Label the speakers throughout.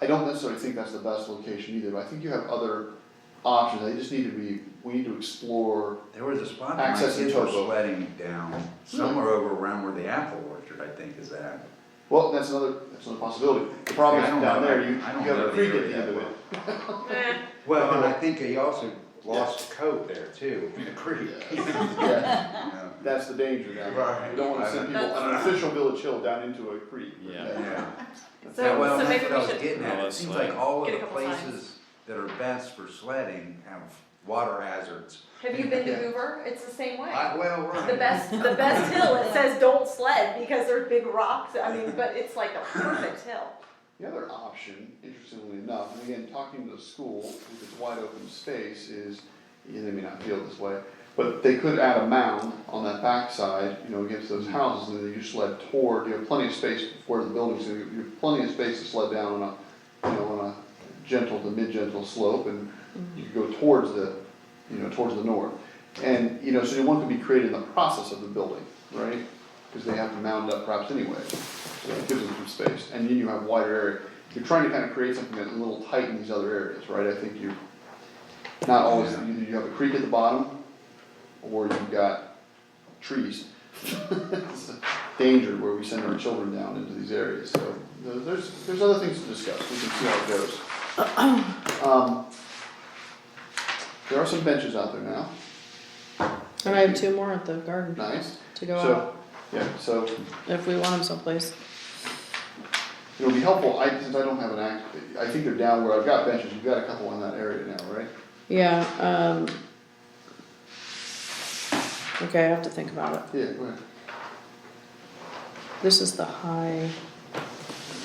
Speaker 1: I don't necessarily think that's the best location either, but I think you have other options, they just need to be, we need to explore,
Speaker 2: There was a spot that my
Speaker 1: Access to
Speaker 2: kids were
Speaker 1: Togo.
Speaker 2: sweating down, somewhere
Speaker 3: Hmm.
Speaker 2: over around where the apple orchard, I think, is at.
Speaker 1: well, that's another, that's another possibility. The problem is
Speaker 2: I don't
Speaker 1: down
Speaker 2: know.
Speaker 1: there, you, you
Speaker 2: I don't
Speaker 1: have
Speaker 2: know
Speaker 1: a
Speaker 2: the
Speaker 1: creek at
Speaker 2: area
Speaker 1: the end of
Speaker 2: that
Speaker 1: it,
Speaker 3: Eh,
Speaker 2: Well, and I think he also lost a coat there too, in the creek.
Speaker 1: yeah,
Speaker 2: Yeah.
Speaker 1: that's the danger down there,
Speaker 2: Right.
Speaker 1: we don't wanna send people on an official village hill down into a creek.
Speaker 4: Yeah.
Speaker 2: Yeah,
Speaker 3: So,
Speaker 2: well,
Speaker 3: so
Speaker 2: that's
Speaker 3: maybe
Speaker 2: what I was
Speaker 3: we should,
Speaker 2: getting at,
Speaker 4: Well,
Speaker 2: it
Speaker 4: it's
Speaker 2: seems
Speaker 4: like-
Speaker 2: like all of
Speaker 3: Get a
Speaker 2: the
Speaker 3: couple signs.
Speaker 2: places that are best for sledding have water hazards.
Speaker 3: have you been to
Speaker 1: Yeah.
Speaker 3: Hoover? It's the same way.
Speaker 2: I, well, right.
Speaker 3: The best, the best hill, it says don't sled because there's big rocks, I mean, but it's like a perfect hill.
Speaker 1: The other option, interestingly enough, and again, talking to the school, if it's wide open space, is, yeah, they may not feel this way, but they could add a mound on that backside, you know, against those houses, and then you sled toward, you have plenty of space before the buildings, so you you have plenty of space to sled down on a, you know, on a gentle to mid-gentle slope, and you could go towards the, you know, towards the north. And, you know, so you want to be created in the process of the building, right? Because they have to mound up perhaps anyway. So it gives them some space, and then you have wider area. You're trying to kind of create something that's a little tight in these other areas, right? I think you, not always,
Speaker 2: Yeah.
Speaker 1: you, you have a creek at the bottom, or you've got trees. It's a Danger where we send our children down into these areas, so there- there's, there's other things to discuss, we can see how it goes. Um, There are some benches out there now,
Speaker 5: And I have two more at the garden
Speaker 1: nice,
Speaker 5: to go
Speaker 1: so, yeah, so
Speaker 5: out if we want them someplace.
Speaker 1: It would be helpful, I, since I don't have an act, I think they're down where I've got benches, you've got a couple in that area now, right?
Speaker 5: Yeah. Um, okay, I have to think about it.
Speaker 1: Yeah, go ahead.
Speaker 5: This is the high.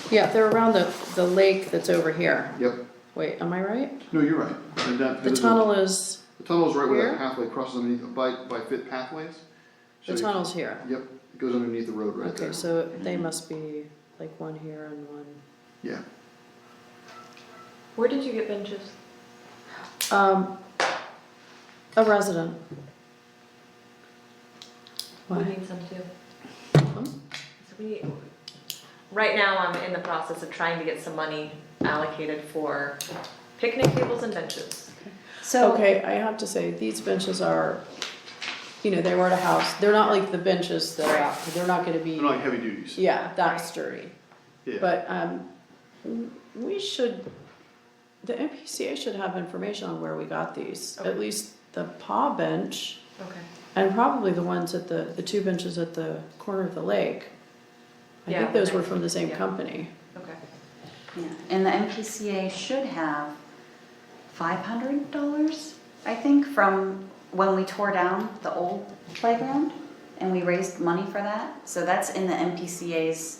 Speaker 5: Yeah, they're around the the lake that's over here.
Speaker 1: Yep,
Speaker 5: Wait, am I right?
Speaker 1: no, you're right. And that-
Speaker 5: The tunnel is
Speaker 1: The tunnel's right where
Speaker 5: Where?
Speaker 1: that pathway crosses underneath, by, by Fit Pathways.
Speaker 5: the
Speaker 1: So you-
Speaker 5: tunnel's here.
Speaker 1: Yep, it goes underneath the road right there.
Speaker 5: Okay, so they must be like one here and one.
Speaker 1: Yeah,
Speaker 3: Where did you get benches?
Speaker 5: Um, a resident.
Speaker 3: We
Speaker 5: Why?
Speaker 3: need some too.
Speaker 5: Hmm?
Speaker 3: So we, right now, I'm in the process of trying to get some money allocated for picnic tables and benches.
Speaker 6: So,
Speaker 5: Okay, I have to say, these benches are, you know, they were at a house, they're not like the benches that are out, they're not gonna
Speaker 1: they're
Speaker 5: be,
Speaker 1: not like heavy duties,
Speaker 5: yeah, that sturdy.
Speaker 1: yeah.
Speaker 5: But, um, w- we should, the MPCA should have information on where we got these,
Speaker 3: Okay.
Speaker 5: at least the paw bench,
Speaker 3: Okay.
Speaker 5: and probably the ones at the, the two benches at the corner of the lake. I
Speaker 3: Yeah,
Speaker 5: think those were
Speaker 3: okay.
Speaker 5: from the same
Speaker 3: Yeah.
Speaker 5: company.
Speaker 3: Okay.
Speaker 6: yeah, and the MPCA should have five hundred dollars, I think, from when we tore down the old playground. And we raised money for that, so that's in the MPCA's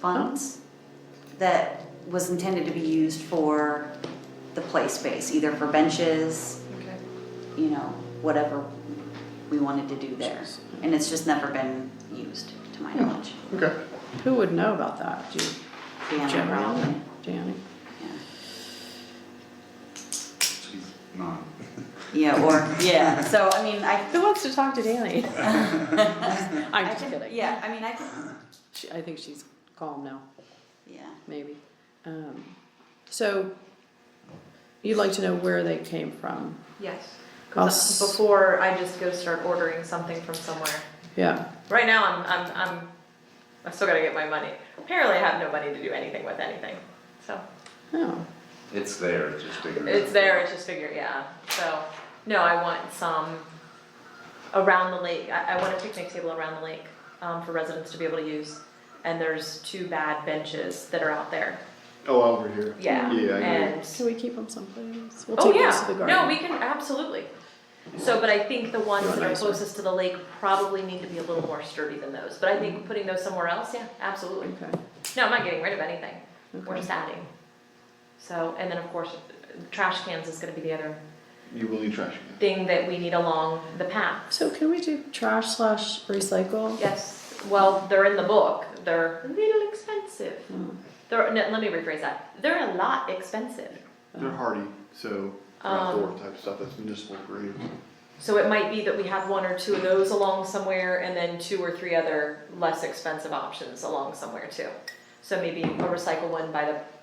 Speaker 6: funds that was intended to be used for the play space, either for benches,
Speaker 3: Okay.
Speaker 6: you know, whatever we wanted to do there. And it's just never been used, to my knowledge.
Speaker 1: Okay,
Speaker 5: Who would know about that? Do you,
Speaker 6: Deanna
Speaker 5: Jim,
Speaker 6: probably,
Speaker 5: Danny?
Speaker 6: yeah.
Speaker 2: She's not.
Speaker 6: Yeah, or, yeah, so, I mean, I,
Speaker 5: Who wants to talk to Danny? I'm
Speaker 6: I
Speaker 5: just
Speaker 6: can,
Speaker 5: kidding.
Speaker 6: yeah, I mean, I can,
Speaker 5: She, I think she's calm now,
Speaker 6: yeah.
Speaker 5: maybe. Um, so you'd like to know where they came from?
Speaker 3: Yes.
Speaker 5: I'll s-
Speaker 3: Before I just go start ordering something from somewhere.
Speaker 5: Yeah.
Speaker 3: Right now, I'm, I'm, I'm, I still gotta get my money. Apparently, I have no money to do anything with anything. So,
Speaker 5: Oh,
Speaker 2: It's there, it's just bigger.
Speaker 3: it's there, it's just figure, yeah. So, no, I want some around the lake. I, I want a picnic table around the lake, um, for residents to be able to use. And there's two bad benches that are out there.
Speaker 1: oh, over here.
Speaker 3: Yeah.
Speaker 1: Yeah, I agree.
Speaker 3: And
Speaker 5: can we keep them someplace? We'll
Speaker 3: Oh,
Speaker 5: take
Speaker 3: yeah.
Speaker 5: those to the garden.
Speaker 3: No, we can, absolutely. So, but I think the ones
Speaker 5: You want
Speaker 3: that are
Speaker 5: nicer.
Speaker 3: closest to the lake probably need to be a little more sturdy than those, but I think putting those somewhere else, yeah, absolutely.
Speaker 5: Okay.
Speaker 3: No, I'm not getting rid of anything, we're
Speaker 5: Okay.
Speaker 3: just adding. So, and then of course, trash cans is gonna be the other
Speaker 1: You will need trash again.
Speaker 3: thing that we need along the path.
Speaker 5: So can we do trash slash recycle?
Speaker 3: Yes, well, they're in the book, they're a little expensive.
Speaker 5: Hmm.
Speaker 3: They're, no, let me rephrase that, they're a lot expensive.
Speaker 1: They're hardy, so they're
Speaker 3: Oh. Um,
Speaker 1: outdoor type stuff, that's municipal grade.
Speaker 3: So it might be that we have one or two of those along somewhere and then two or three other less expensive options along somewhere too. So maybe a recycle one by the